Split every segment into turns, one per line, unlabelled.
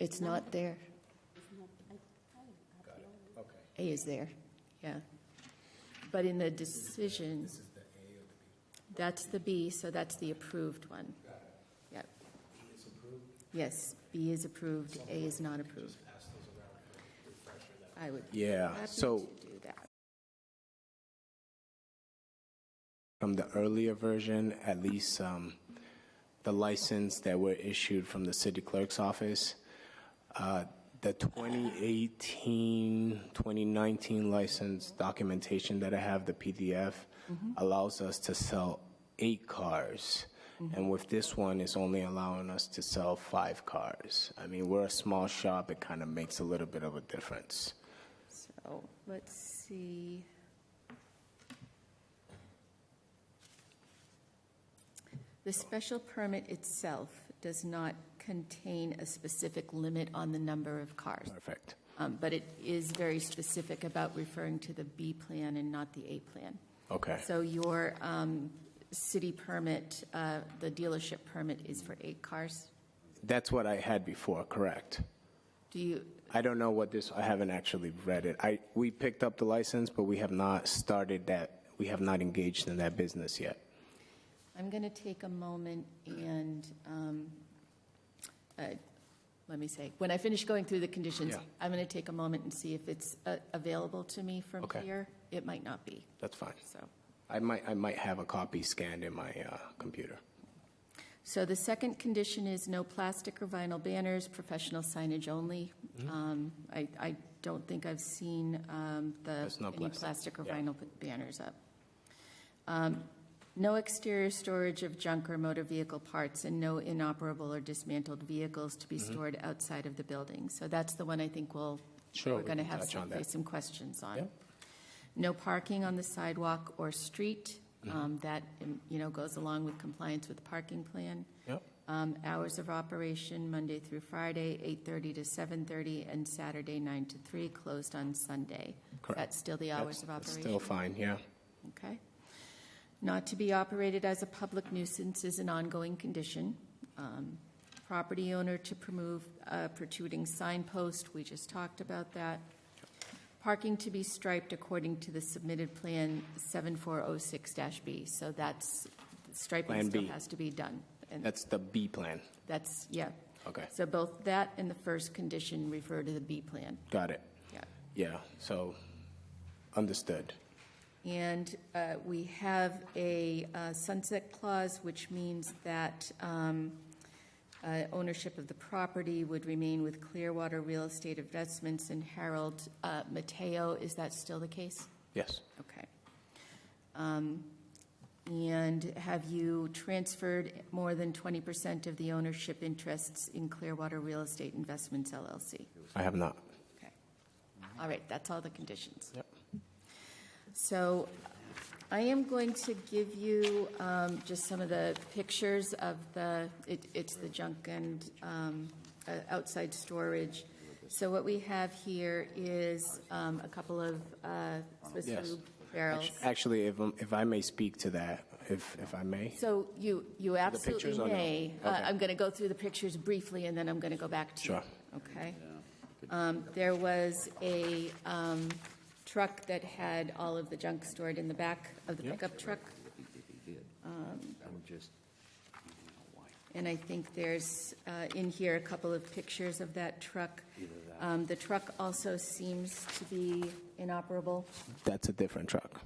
It's not there. A is there, yeah. But in the decision, that's the B, so that's the approved one. Yep. Yes, B is approved, A is not approved. I would be
Yeah,
happy
so
to do that.
from the earlier version, at least um, the license that were issued from the city clerk's office, uh, the 2018, 2019 license documentation that I have, the PDF, allows us to sell eight cars. And with this one, it's only allowing us to sell five cars. I mean, we're a small shop, it kind of makes a little bit of a difference.
So, let's see. The special permit itself does not contain a specific limit on the number of cars.
Perfect.
Um, But it is very specific about referring to the B plan and not the A plan.
Okay.
So your um, city permit, uh, the dealership permit is for eight cars?
That's what I had before, correct?
Do you,
I don't know what this, I haven't actually read it. I, we picked up the license, but we have not started that, we have not engaged in that business yet.
I'm going to take a moment and, um, uh, let me say, when I finish going through the conditions,
Yeah.
I'm going to take a moment and see if it's uh, available to me from
Okay.
here. It might not be,
That's fine.
so.
I might, I might have a copy scanned in my uh, computer.
So the second condition is no plastic or vinyl banners, professional signage only.
Mm-hmm.
Um, I, I don't think I've seen um, the,
There's no
any
plastic,
plastic or
yeah.
vinyl p- banners up. Um, No exterior storage of junk or motor vehicle parts, and no inoperable or dismantled vehicles to be
Mm-hmm.
stored outside of the building. So that's the one I think we'll,
Sure,
we're
we
going to
can
have
touch on
some,
that.
some questions on.
Yep.
No parking on the sidewalk or street.
Mm-hmm.
Um, That, you know, goes along with compliance with parking plan.
Yep.
Um, Hours of operation, Monday through Friday, 8:30 to 7:30, and Saturday, 9 to 3, closed on Sunday.
Correct.
That's still the
That's
hours of
that's
operation?
still fine, yeah.
Okay. Not to be operated as a public nuisance is an ongoing condition. Um, Property owner to remove a protruding signpost, we just talked about that. Parking to be striped according to the submitted plan 7406-B. So that's, striping
Plan
still
B.
has to be done. And
That's the B plan.
that's, yeah.
Okay.
So both that and the first condition refer to the B plan.
Got it.
Yeah.
Yeah, so, understood.
And uh, we have a uh, sunset clause, which means that um, uh, ownership of the property would remain with Clearwater Real Estate Investments and Harold uh, Mateo. Is that still the case?
Yes.
Okay. Um, And have you transferred more than 20% of the ownership interests in Clearwater Real Estate Investments LLC?
I have not.
Okay. All right, that's all the conditions.
Yep.
So I am going to give you um, just some of the pictures of the, it- it's the junk and um, uh, outside storage. So what we have here is um, a couple of uh, Swiss
Yes.
food barrels.
Actually, if, um, if I may speak to that, if, if I may.
So you, you absolutely
pictures or no?
may. Uh,
Okay.
I'm going to go through the pictures briefly, and then I'm going to go back to you.
Sure.
Okay? Um, There was a um, truck that had all of the junk stored in the back of the
Yeah.
pickup truck, Um,
I'm just,
and I think there's uh, in here a couple of pictures of that truck. Um, The truck also seems to be inoperable.
That's a different truck.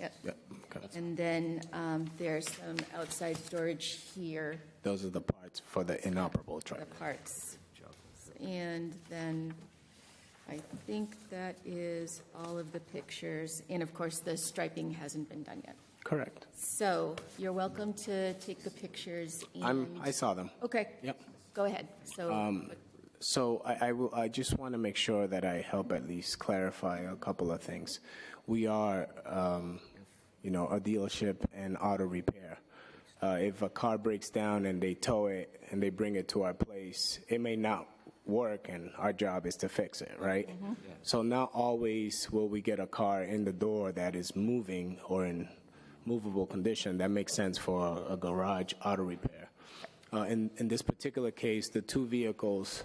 Yep.
Yep, okay.
And then um, there's some outside storage here.
Those are the parts for the inoperable truck.
the parts. And then I think that is all of the pictures. And of course, the striping hasn't been done yet.
Correct.
So you're welcome to take the pictures
I'm,
and,
I Um, saw them.
okay.
Yep.
Go ahead. So,
So I, I will, I just want to make sure that I help at least clarify a couple of things. We are, um, you know, a dealership and auto repair. Uh, if a car breaks down and they tow it and they bring it to our place, it may not work and our job is to fix it, right? So not always will we get a car in the door that is moving or in movable condition. That makes sense for a garage auto repair. Uh, in, in this particular case, the two vehicles